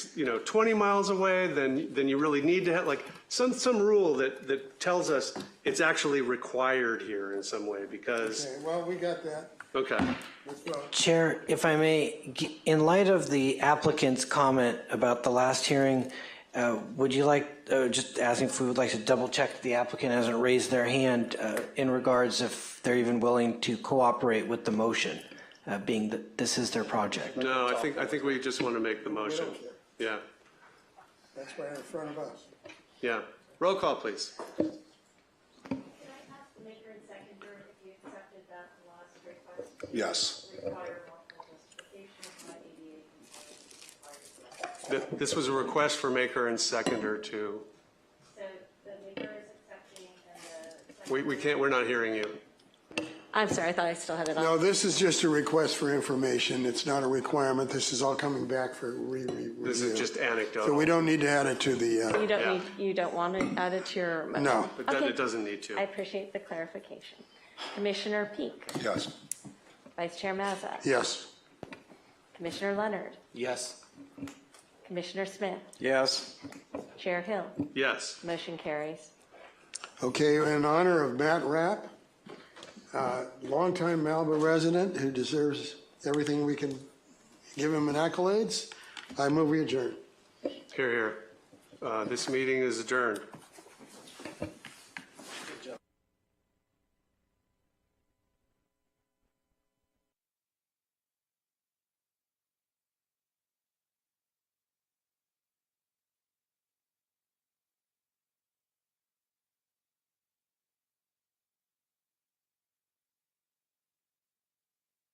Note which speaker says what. Speaker 1: you know, 20 miles away than, than you really need to have, like, some, some rule that, that tells us it's actually required here in some way, because,
Speaker 2: Okay, well, we got that.
Speaker 1: okay.
Speaker 2: Let's go.
Speaker 3: Chair, if I may, g- in light of the applicant's comment about the last hearing, uh, would you like, uh, just asking if we would like to double-check the applicant hasn't raised their hand uh, in regards if they're even willing to cooperate with the motion, uh, being that this is their project?
Speaker 1: No, I think, I think we just want to make the motion.
Speaker 2: care.
Speaker 1: Yeah,
Speaker 2: That's right in front of us.
Speaker 1: yeah. Roll call, please.
Speaker 4: Can I ask the maker and seconder if you accepted that last request? to
Speaker 5: Yes.
Speaker 4: Require multiple justification of my ADA compliance requirement.
Speaker 1: Th- This was a request for maker and seconder to,
Speaker 4: So the maker is accepting and the seconder.
Speaker 1: we, we can't, we're not hearing you.
Speaker 6: I'm sorry, I thought I still had it on.
Speaker 2: No, this is just a request for information. It's not a requirement. This is all coming back for re, re, review.
Speaker 1: This is just
Speaker 2: So we
Speaker 1: anecdotal,
Speaker 2: don't need to add it to the,
Speaker 6: You
Speaker 2: uh,
Speaker 6: don't
Speaker 1: Yeah.
Speaker 6: need, you don't want to add it to your. motion.
Speaker 2: No.
Speaker 1: but then
Speaker 6: Okay.
Speaker 1: it doesn't need
Speaker 6: I
Speaker 1: to.
Speaker 6: appreciate the clarification. Commissioner Peak,
Speaker 5: Yes.
Speaker 6: Vice Chair Mazza.
Speaker 2: yes.
Speaker 6: Commissioner Leonard,
Speaker 7: Yes.
Speaker 6: Commissioner Smith,
Speaker 7: Yes.
Speaker 6: Chair Hill.
Speaker 1: Yes.
Speaker 6: Motion carries.
Speaker 2: Okay, in honor of Matt Rapp, uh, longtime Malibu resident who deserves everything we can give him in accolades, I move we adjourn.
Speaker 1: Here, here. Uh, This meeting is adjourned.